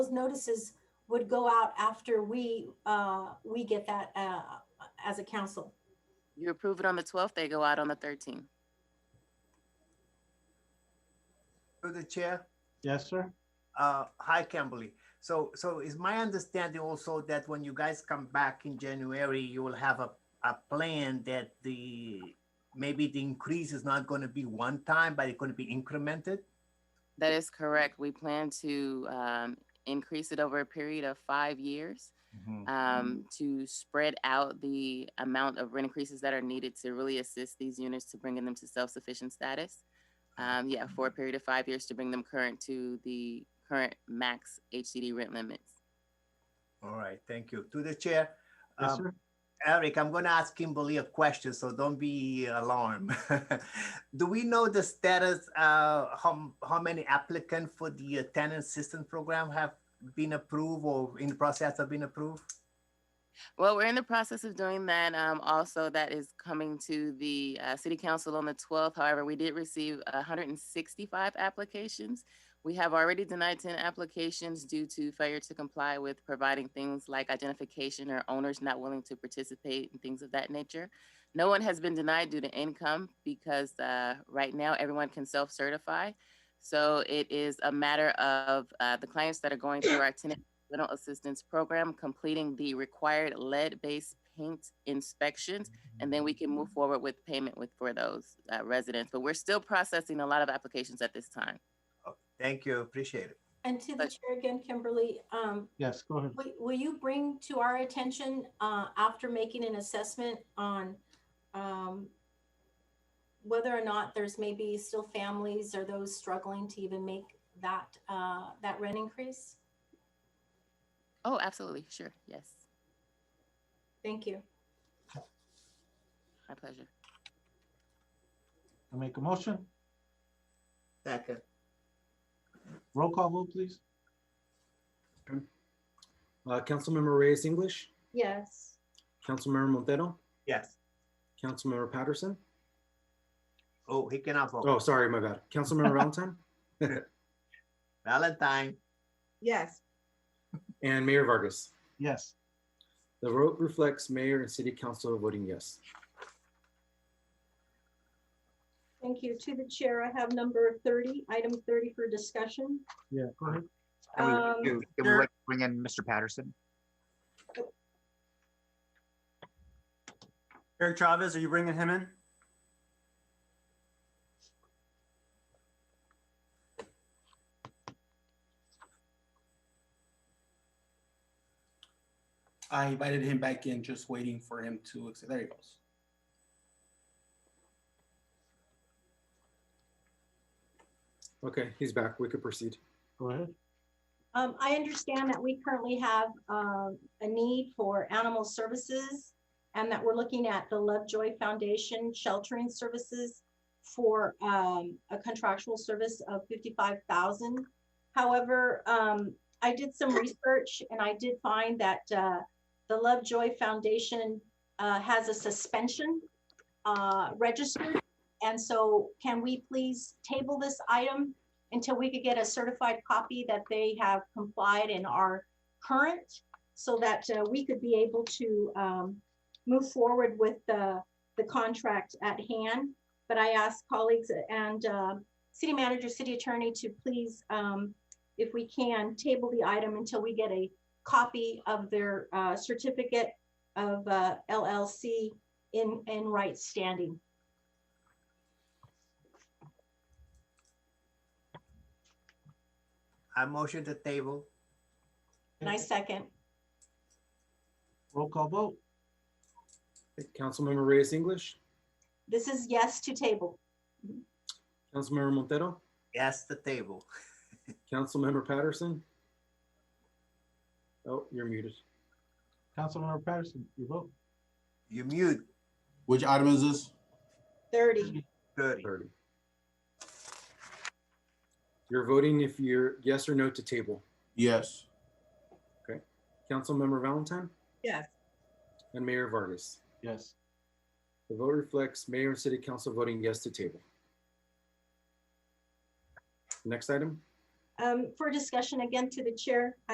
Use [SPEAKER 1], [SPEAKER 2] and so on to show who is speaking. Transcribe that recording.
[SPEAKER 1] those notices would go out after we, uh, we get that, uh, as a council.
[SPEAKER 2] You approve it on the twelfth, they go out on the thirteenth.
[SPEAKER 3] Through the chair,
[SPEAKER 4] Yes, sir.
[SPEAKER 3] uh, hi, Kimberly. So, so is my understanding also that when you guys come back in January, you will have a, a plan that the, maybe the increase is not gonna be one time, but it's gonna be incremented?
[SPEAKER 2] That is correct. We plan to um, increase it over a period of five years um, to spread out the amount of rent increases that are needed to really assist these units to bringing them to self-sufficient status. Um, yeah, for a period of five years to bring them current to the current max HCD rent limits.
[SPEAKER 3] All right, thank you. To the chair,
[SPEAKER 4] Yes,
[SPEAKER 3] um,
[SPEAKER 4] sir.
[SPEAKER 3] Eric, I'm gonna ask Kimberly a question, so don't be alarmed. Do we know the status, uh, how, how many applicants for the uh, tenant assistance program have been approved or in the process of being approved?
[SPEAKER 2] Well, we're in the process of doing that. Um, also, that is coming to the uh, city council on the 12th. However, we did receive 165 applications. We have already denied 10 applications due to failure to comply with providing things like identification or owners not willing to participate and things of that nature. No one has been denied due to income because uh, right now everyone can self certify. So it is a matter of uh, the clients that are going through our tenant rental assistance program, completing the required lead-based paint inspections, and then we can move forward with payment with, for those uh, residents. But we're still processing a lot of applications at this time.
[SPEAKER 3] Thank you, appreciate it.
[SPEAKER 1] And to the
[SPEAKER 2] But-
[SPEAKER 1] chair again, Kimberly, um,
[SPEAKER 4] Yes, go ahead.
[SPEAKER 1] will, will you bring to our attention, uh, after making an assessment on, um, whether or not there's maybe still families or those struggling to even make that, uh, that rent increase?
[SPEAKER 2] Oh, absolutely, sure, yes,
[SPEAKER 1] Thank you.
[SPEAKER 2] my pleasure.
[SPEAKER 4] I make a motion.
[SPEAKER 3] Second.
[SPEAKER 4] Roll call vote, please.
[SPEAKER 5] Uh, Councilmember Reyes English,
[SPEAKER 1] Yes.
[SPEAKER 5] Councilmember Montero,
[SPEAKER 3] Yes.
[SPEAKER 5] Councilmember Patterson.
[SPEAKER 3] Oh, he cannot vote.
[SPEAKER 5] Oh, sorry, my bad. Councilmember Valentine
[SPEAKER 3] Valentine,
[SPEAKER 6] Yes,
[SPEAKER 5] and Mayor Vargas.
[SPEAKER 4] Yes,
[SPEAKER 5] The vote reflects mayor and city council voting yes.
[SPEAKER 1] Thank you. To the chair, I have number thirty, item thirty for discussion.
[SPEAKER 4] yeah, go ahead.
[SPEAKER 7] Can
[SPEAKER 1] Um,
[SPEAKER 7] we, do- can we
[SPEAKER 3] there-
[SPEAKER 7] like bring in Mr. Patterson?
[SPEAKER 8] Eric Chavez, are you bringing him in?
[SPEAKER 9] I invited him back in, just waiting for him to, accept. there he goes.
[SPEAKER 5] Okay, he's back. We could proceed.
[SPEAKER 4] Go ahead.
[SPEAKER 1] Um, I understand that we currently have, um, a need for animal services and that we're looking at the Lovejoy Foundation sheltering services for, um, a contractual service of fifty-five thousand. However, um, I did some research and I did find that, uh, the Lovejoy Foundation, uh, has a suspension, uh, registered. And so can we please table this item until we could get a certified copy that they have complied and are current so that uh, we could be able to um, move forward with the, the contract at hand. But I ask colleagues and uh, city manager, city attorney to please, um, if we can, table the item until we get a copy of their uh, certificate of uh, LLC in, in right standing.
[SPEAKER 3] I motion to table.
[SPEAKER 1] And I second,
[SPEAKER 4] Roll call vote.
[SPEAKER 5] Councilmember Reyes English,
[SPEAKER 1] this is yes to table.
[SPEAKER 5] Councilmember Montero,
[SPEAKER 3] Yes, the table.
[SPEAKER 5] Councilmember Patterson. Oh, you're muted.
[SPEAKER 4] Councilmember Patterson, you vote.
[SPEAKER 3] You mute,
[SPEAKER 9] Which item is this?
[SPEAKER 1] 30.
[SPEAKER 3] Thirty.
[SPEAKER 5] Thirty. You're voting if you're yes or no to table.
[SPEAKER 9] Yes.
[SPEAKER 5] Councilmember Valentine
[SPEAKER 6] yes,
[SPEAKER 5] and Mayor Vargas.
[SPEAKER 4] Yes,
[SPEAKER 5] The vote reflects mayor and city council voting yes to table. Next item.
[SPEAKER 1] Um, For discussion again to the chair,